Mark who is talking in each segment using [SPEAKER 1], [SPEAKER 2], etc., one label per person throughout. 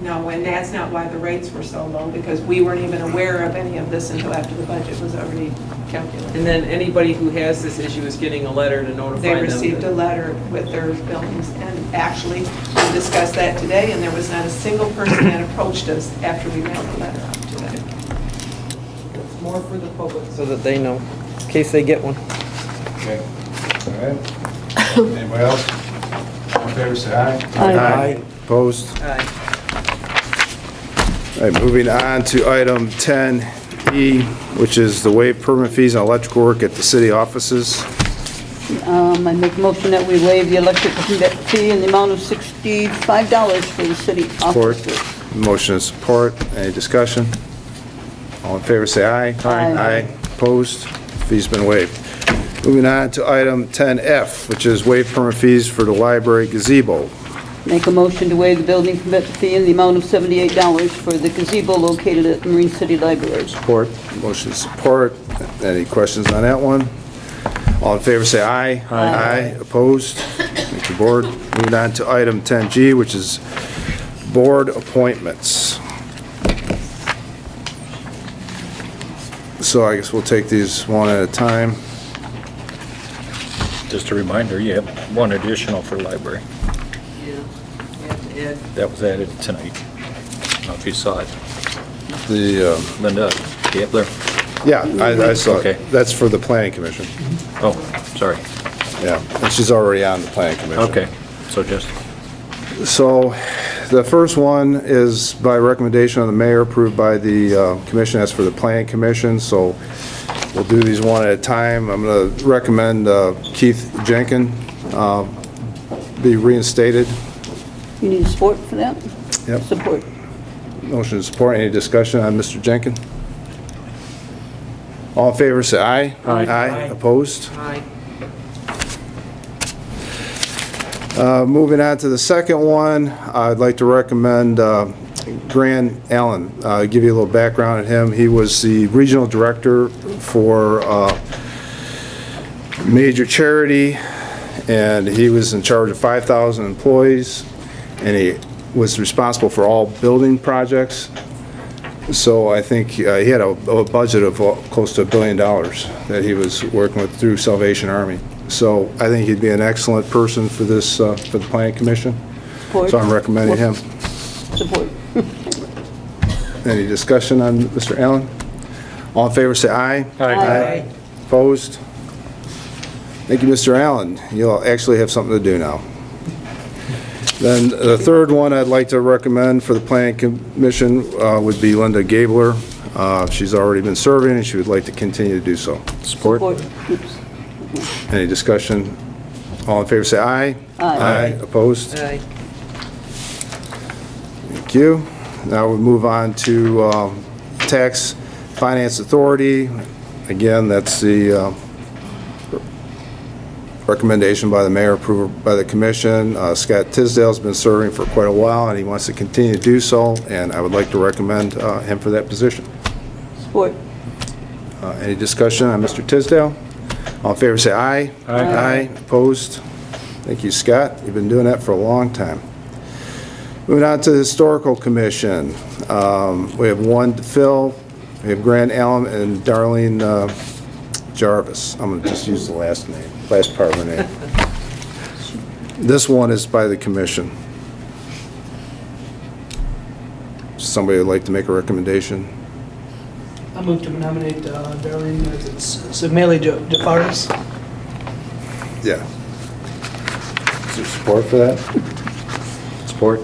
[SPEAKER 1] No, and that's not why the rates were so low, because we weren't even aware of any of this until after the budget was already calculated.
[SPEAKER 2] And then anybody who has this issue is getting a letter to notify them.
[SPEAKER 1] They received a
[SPEAKER 2] that-
[SPEAKER 1] letter with their billings, and actually, we discussed that today, and there was not a single person that approached us after we mailed the letter out to them.
[SPEAKER 3] It's more for the public.
[SPEAKER 2] So that they know, in case they get one.
[SPEAKER 4] Okay, all right. Anybody else? All in favor, say aye.
[SPEAKER 5] Aye. Opposed?
[SPEAKER 2] Aye.
[SPEAKER 5] All right, moving on to item 10E, which is the waive permit fees on electrical work at the city offices.
[SPEAKER 6] Um, I make a motion that we waive the electrical fee in the amount of $65 for the city
[SPEAKER 5] Support.
[SPEAKER 6] offices.
[SPEAKER 5] Motion and support. Any discussion? All in favor, say aye.
[SPEAKER 6] Aye.
[SPEAKER 5] Aye. Opposed? Fees been waived. Moving on to item 10F, which is waive permit fees for the library gazebo.
[SPEAKER 6] Make a motion to waive the building permit fee in the amount of $78 for the gazebo located at the Marine City Library.
[SPEAKER 5] Support. Motion support. Any questions on that one? All in favor, say aye. Aye. Opposed? Thank you, Board. Moving on to item 10G, which is board appointments. So I guess we'll take these one at a time.
[SPEAKER 7] Just a reminder, you have one additional for library.
[SPEAKER 2] Yeah.
[SPEAKER 7] That was added tonight. I don't know if you saw it.
[SPEAKER 5] The, um,
[SPEAKER 7] Linda Gabler.
[SPEAKER 5] yeah, I I saw
[SPEAKER 7] Okay.
[SPEAKER 5] it. That's for the Planning Commission.
[SPEAKER 7] Oh, sorry.
[SPEAKER 5] Yeah, and she's already on the Planning Commission.
[SPEAKER 7] Okay, so just,
[SPEAKER 5] So the first one is by recommendation of the mayor, approved by the uh, commission, that's for the planning commission, so we'll do these one at a time. I'm going to recommend uh, Keith Jenkin uh, be reinstated.
[SPEAKER 6] You need support for that?
[SPEAKER 5] Yep.
[SPEAKER 6] Support.
[SPEAKER 5] Motion to support, any discussion on Mr. Jenkin? All in favor, say aye. Aye. Aye, opposed?
[SPEAKER 2] Aye.
[SPEAKER 5] Uh, Moving on to the second one, I'd like to recommend uh, Grant Allen. Uh, Give you a little background on him. He was the regional director for uh, major charity, and he was in charge of 5,000 employees, and he was responsible for all building projects. So I think uh, he had a a budget of uh, close to a billion dollars that he was working with through Salvation Army. So I think he'd be an excellent person for this, uh, for the planning commission.
[SPEAKER 6] Support.
[SPEAKER 5] So I'm recommending him.
[SPEAKER 6] Support.
[SPEAKER 5] Any discussion on Mr. Allen? All in favor, say aye.
[SPEAKER 6] Aye.
[SPEAKER 5] Opposed? Thank you, Mr. Allen. You'll actually have something to do now. Then the third one I'd like to recommend for the planning commission uh, would be Linda Gabler. Uh, She's already been serving, and she would like to continue to do so.
[SPEAKER 6] Support. Oops.
[SPEAKER 5] Any discussion? All in favor, say aye. Aye. Opposed?
[SPEAKER 2] Aye.
[SPEAKER 5] Thank you. Now we move on to um, Tax Finance Authority. Again, that's the uh, recommendation by the mayor, approval by the commission. Uh, Scott Tisdale's been serving for quite a while, and he wants to continue to do so, and I would like to recommend uh, him for that position.
[SPEAKER 6] Support.
[SPEAKER 5] Uh, Any discussion on Mr. Tisdale? All in favor, say aye. Aye. Opposed? Thank you, Scott. You've been doing that for a long time. Moving on to the Historical Commission. Um, We have one to fill. We have Grant Allen and Darlene uh, Jarvis. I'm going to just use the last name, last part of her name. This one is by the commission. Somebody would like to make a recommendation?
[SPEAKER 3] I move to nominate uh, Darlene Semaili DeFaris.
[SPEAKER 5] Yeah. Is there support for that? Support.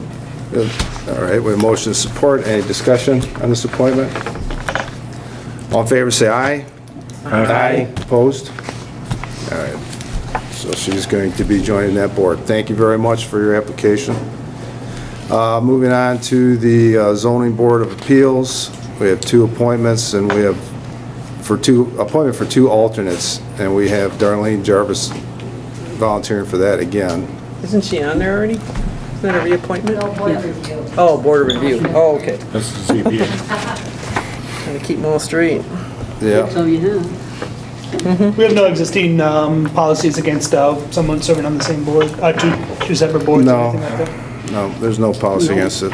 [SPEAKER 5] All right, we have motion to support. Any discussion on this appointment? All in favor, say aye. Opposed? All right. So she's going to be joining that board. Thank you very much for your application. Uh, Moving on to the uh, zoning board of appeals, we have two appointments, and we have, for two, appointment for two alternates, and we have Darlene Jarvis volunteering for that again.
[SPEAKER 2] Isn't she on there already? Isn't that a reappointment? No, board review. Oh, board review. Oh, okay.
[SPEAKER 7] this is ZBA.
[SPEAKER 2] Gotta keep them all straight.
[SPEAKER 5] Yeah,
[SPEAKER 6] So you have.
[SPEAKER 3] We have no existing um, policies against uh, someone serving on the same board, uh, two, two separate boards or
[SPEAKER 5] No.
[SPEAKER 3] anything like that.
[SPEAKER 5] no, there's no policy against it.